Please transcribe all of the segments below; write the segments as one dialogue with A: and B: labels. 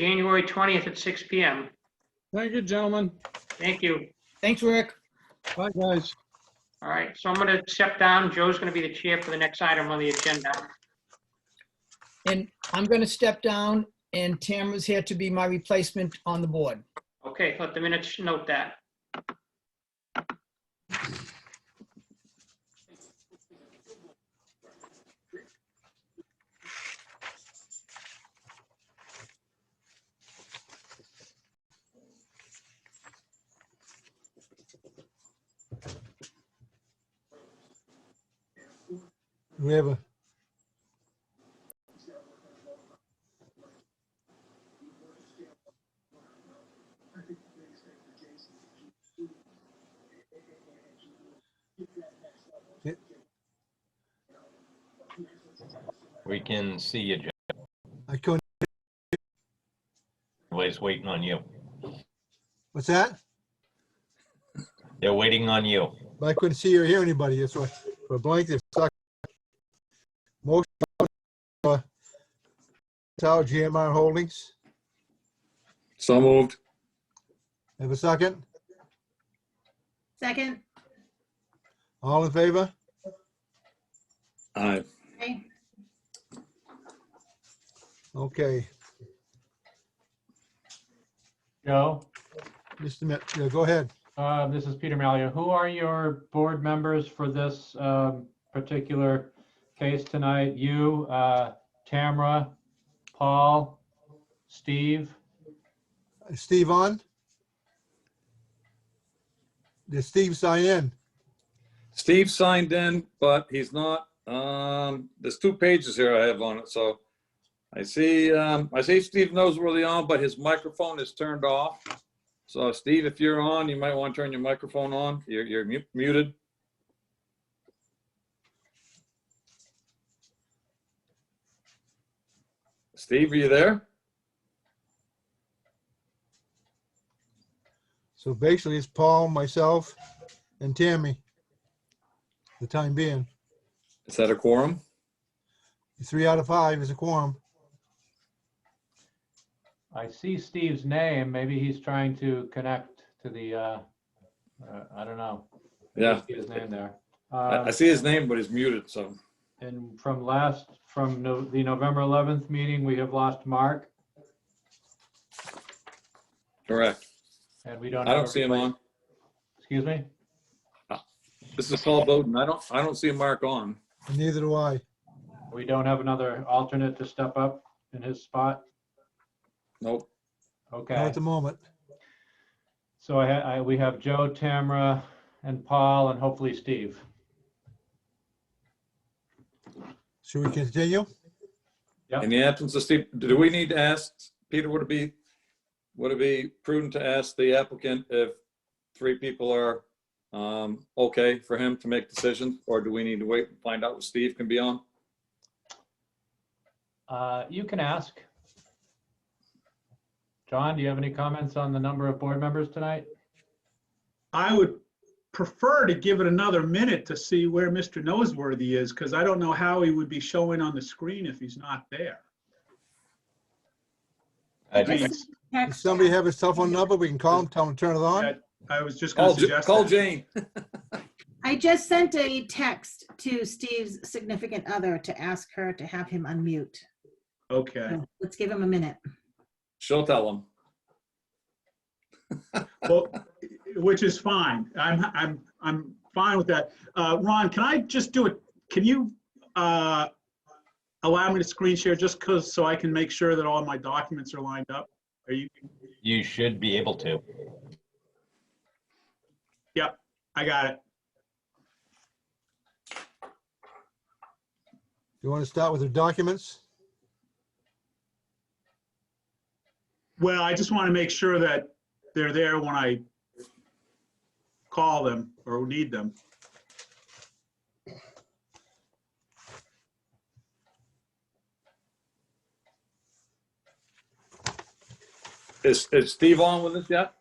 A: January 20th at 6 PM.
B: Thank you, gentlemen.
A: Thank you.
C: Thanks, Rick.
B: Bye, guys.
A: All right, so I'm going to step down. Joe's going to be the chair for the next item on the agenda.
C: And I'm going to step down and Tamara's here to be my replacement on the board.
A: Okay, let the minutes note that.
D: Do we have a,
E: We can see you, Jeff.
D: I couldn't,
E: Everybody's waiting on you.
D: what's that?
E: They're waiting on you.
D: But I couldn't see or hear anybody, that's why, for a blank, they stuck. Motion. uh, Tower GMR Holdings,
F: So moved.
D: have a second?
G: Second,
D: All in favor?
F: Aye.
G: okay,
D: Okay,
H: Joe,
D: Mr. Met, yeah, go ahead.
H: uh, this is Peter Malia. Who are your board members for this um, particular case tonight? You, uh, Tamara, Paul, Steve?
D: Steve on? Did Steve sign in?
F: Steve signed in, but he's not, um, there's two pages here I have on it, so. I see, um, I see Steve knows where they are, but his microphone is turned off. So Steve, if you're on, you might want to turn your microphone on. You're, you're mu- muted. Steve, are you there?
D: So basically, it's Paul, myself, and Tammy. The time being,
F: Is that a quorum?
D: three out of five is a quorum.
H: I see Steve's name. Maybe he's trying to connect to the, uh, uh, I don't know.
F: Yeah,
H: See His name there.
F: I, I
H: Um,
F: see his name, but he's muted, so.
H: And from last, from no- the November 11th meeting, we have lost Mark
F: Correct.
H: and we don't.
F: I
H: have
F: don't
H: a
F: see him on.
H: replace- Excuse me?
F: This is Paul Bowden. I don't, I don't see Mark on.
D: and Neither do I.
H: We don't have another alternate to step up in his spot?
F: Nope.
H: Okay.
D: Not at the moment.
H: So I, ha- I, we have Joe, Tamara, and Paul, and hopefully Steve.
D: Should we continue?
F: In the absence of Steve, do we need to ask, Peter, would it be, would it be prudent to ask the applicant if three people are um, okay for him to make decisions? Or do we need to wait and find out what Steve can be on?
H: Uh, you can ask. John, do you have any comments on the number of board members tonight?
I: I would prefer to give it another minute to see where Mr. Noseworthy is, because I don't know how he would be showing on the screen if he's not there.
E: I Uh,
I: I mean,
D: Does somebody have his cell phone number? We can call him, tell him to turn it on.
I: I was just gonna
F: Call, J-
I: suggest
F: call
I: that.
F: Jane.
G: I just sent a text to Steve's significant other to ask her to have him unmute.
I: Okay,
G: So Let's give him a minute.
F: She'll tell him.
I: well, which is fine. I'm, I'm, I'm fine with that. Uh, Ron, can I just do it? Can you, uh, allow me to screen share just because, so I can make sure that all my documents are lined up? Are you,
E: You should be able to.
I: I got it.
D: You want to start with the documents?
I: Well, I just want to make sure that they're there when I call them or need them.
F: Is, is Steve on with us yet?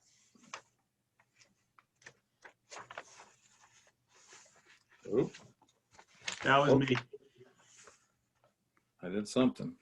F: Oop,
I: That was me.
F: Oh. I did something.